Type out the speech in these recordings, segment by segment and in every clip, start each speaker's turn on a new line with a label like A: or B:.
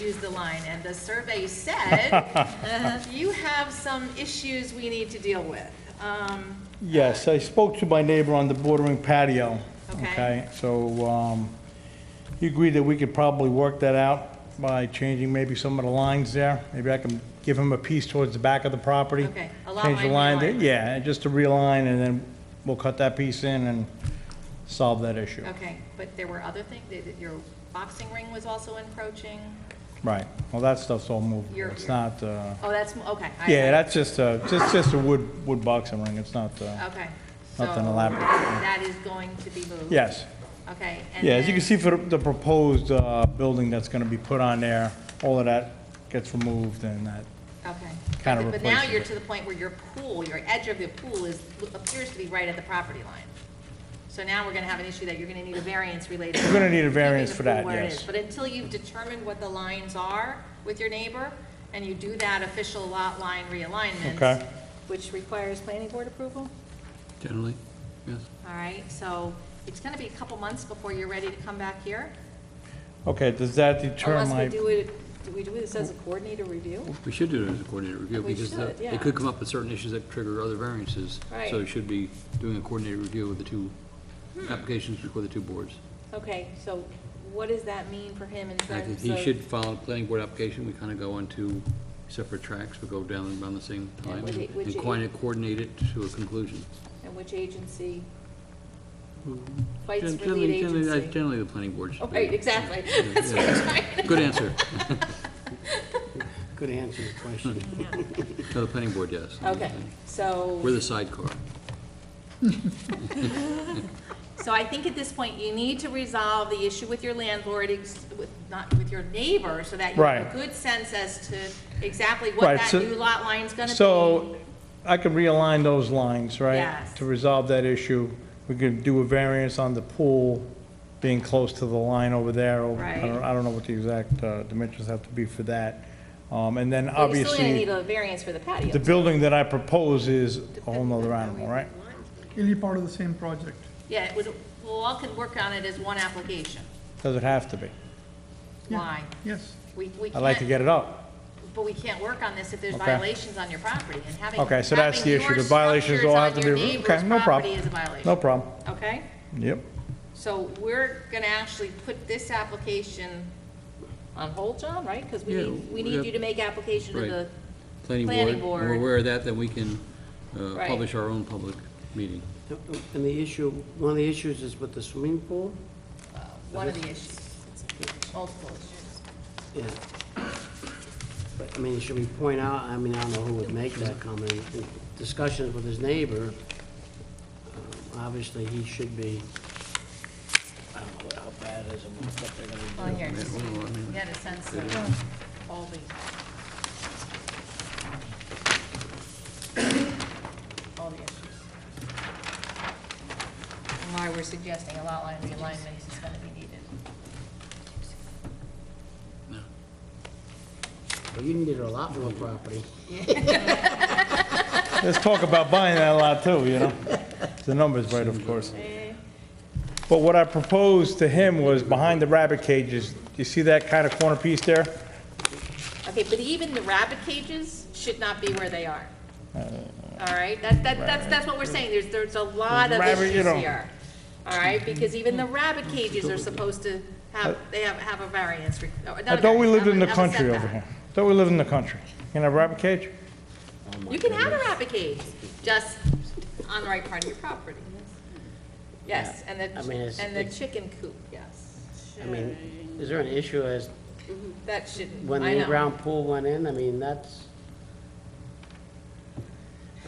A: use the line, and the survey said, uh, you have some issues we need to deal with. Um,
B: Yes, I spoke to my neighbor on the bordering patio.
A: Okay.
B: So, um, he agreed that we could probably work that out by changing maybe some of the lines there. Maybe I can give him a piece towards the back of the property.
A: Okay, a lot
B: Change the
A: line
B: line, there.
A: realignment.
B: yeah, and just to realign, and then we'll cut that piece in and solve that issue.
A: Okay, but there were other things, that- that your boxing ring was also encroaching?
B: Right, well, that stuff's all movable,
A: Your-
B: it's
A: your-
B: not, uh,
A: Oh, that's, okay. I-
B: yeah, that's just, uh, just, just a wood, wood boxing ring, it's not, uh,
A: Okay.
B: Nothing
A: so
B: elaborate.
A: That is going to be moved?
B: yes.
A: Okay. and
B: Yeah, as you
A: then-
B: can see for the proposed uh, building that's going to be put on there, all of that gets removed and that,
A: Okay.
B: kinda
A: But- But now
B: replaces
A: you're
B: it.
A: to the point where your pool, your edge of your pool is, appears to be right at the property line. So now we're gonna have an issue that you're gonna need a variance related.
B: We're gonna need a
A: keeping the
B: variance for
A: pool
B: that,
A: where it is.
B: yes.
A: But until you've determined what the lines are with your neighbor, and you do that official lot line realignment.
B: Okay.
A: Which requires planning board approval?
C: Generally, yes.
A: All right, so it's gonna be a couple months before you're ready to come back here?
B: okay, does that deter
D: Unless we
B: my,
D: do it, do we do this as a coordinator review?
C: We should do it as a coordinated review,
D: We
C: because the-
D: should, yeah.
C: it could come up with certain issues that trigger other variances.
D: Right.
C: So it should be doing a coordinated review with the two
D: Hmm.
C: applications before the two boards.
D: Okay, so what does that mean for him
C: And I
D: instead?
C: think he should file a planning board application, we kind of go on two separate tracks, we go down and around the same
D: Yeah,
C: time,
D: would
C: and
D: it- would
C: and
D: you-
C: kind of coordinate it to a conclusion.
D: And which agency? Fights
C: Gen-
D: for
C: Generally,
D: lead
C: generally, uh,
D: agency?
C: Generally, the planning board
D: Oh,
C: should be.
D: right, exactly.
C: Yeah,
D: That's what I'm trying to-
C: yeah. Good answer.
E: Good answer to the question.
C: No, the planning board, yes.
D: Okay,
C: We're
D: so,
C: the sidecar.
A: So I think at this point, you need to resolve the issue with your landlord, ex- with, not with your neighbor, so that you have
B: Right.
A: a good sense as to exactly what
B: Right,
A: that
B: so-
A: new lot line's gonna be.
B: so I could realign those lines, right?
A: Yes.
B: To resolve that issue, we could do a variance on the pool being close to the line over there. or- I don't,
A: Right.
B: I don't know what the exact uh, dimensions have to be for that. Um, And then
D: but you're still gonna need
B: obviously,
D: a variance for the patio.
B: the building that I propose is a whole nother animal, right?
F: It'll be part of the same project.
A: Yeah, it would, we'll all can work on it as one application.
B: Does it have to be?
F: Yeah.
A: Why?
F: Yes.
A: We, we
B: I'd like to
A: can't,
B: get it up.
A: but we can't work on this if there's
B: Okay.
A: violations on your property, and having,
B: Okay, so that's the
A: having
B: issue,
A: your
B: the violations
A: structures
B: all
A: on
B: have to be.
A: your
B: okay.
A: neighbor's
B: No problem.
A: property is a violation.
B: No problem,
A: Okay?
B: yep.
A: So we're gonna actually put this application
D: On hold, John, right? Because we
C: Yeah,
D: need, we
C: we
D: need
C: have-
D: you to make application to
C: Right.
D: the,
C: planning board.
D: Planning
C: When
D: board.
C: We're aware of that, then we can uh,
D: Right.
C: publish our own public meeting.
E: And the issue, one of the issues is with the swimming pool?
A: one of the issues, multiple issues.
E: Yeah. But, I mean, should we point out, I mean, I don't know who would make that comment. In Discussions with his neighbor, um, obviously, he should be, I don't know what- how bad it is and what they're gonna do.
A: Well, here,
C: Yeah, well, I mean,
A: you had a sense of all the, all the issues. And why we're suggesting a lot line realignment is gonna be needed.
E: But you needed a lot more property.
B: Let's talk about buying that lot too, you know? The number's right, of course. But what I proposed to him was behind the rabbit cages, you see that kind of corner piece there?
A: Okay, but even the rabbit cages should not be where they are.
B: Oh.
A: All right, that, that, that's, that's what we're saying, there's, there's a lot of
B: Rabbit, you
A: issues
B: know.
A: here. All right, because even the rabbit cages are supposed to have, they have, have a variance, re- or not
B: Uh, I
A: a
B: thought we
A: variance,
B: lived
A: have
B: in
A: a-
B: the
A: have a
B: country over
A: setback.
B: here. I Thought we lived in the country. In a rabbit cage?
A: You can have a rabbit cage, just on the right part of your property. Yes, and
E: I mean, it's-
A: the, and the
E: it-
A: chicken coop, yes.
E: I mean, is there an issue as
A: That shouldn't,
E: when
A: I
E: the
A: know.
E: in-ground pool went in, I mean, that's,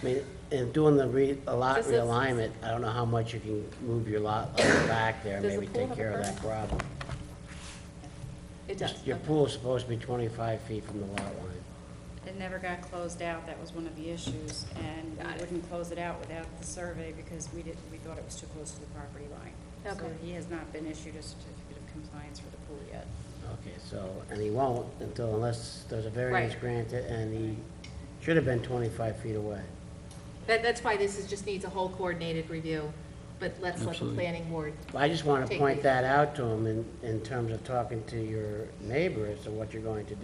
E: I mean, and doing the re, a lot
D: Does this-
E: realignment, I don't know how much you can move your lot line back there and
D: Does the
E: maybe
D: pool
E: take
D: have a
E: care of that
D: pergola?
E: problem.
D: it does.
E: Your pool's supposed to be twenty-five feet from the lot line.
G: It never got closed out, that was one of the issues, and we wouldn't close it out without the survey because we didn't, we thought it was too close to the property line. So
D: Okay.
G: he has not been issued a certificate of compliance for the pool yet.
E: Okay, so, and he won't until unless there's a variance
A: Right.
E: granted, and he should have been twenty-five feet away.
A: That, that's why this is, just needs a whole coordinated review but let's let the
C: Absolutely.
A: planning board
E: I just want to
A: Take
E: point
A: these.
E: that out to them in, in terms of talking to your neighbor as to what you're going to do.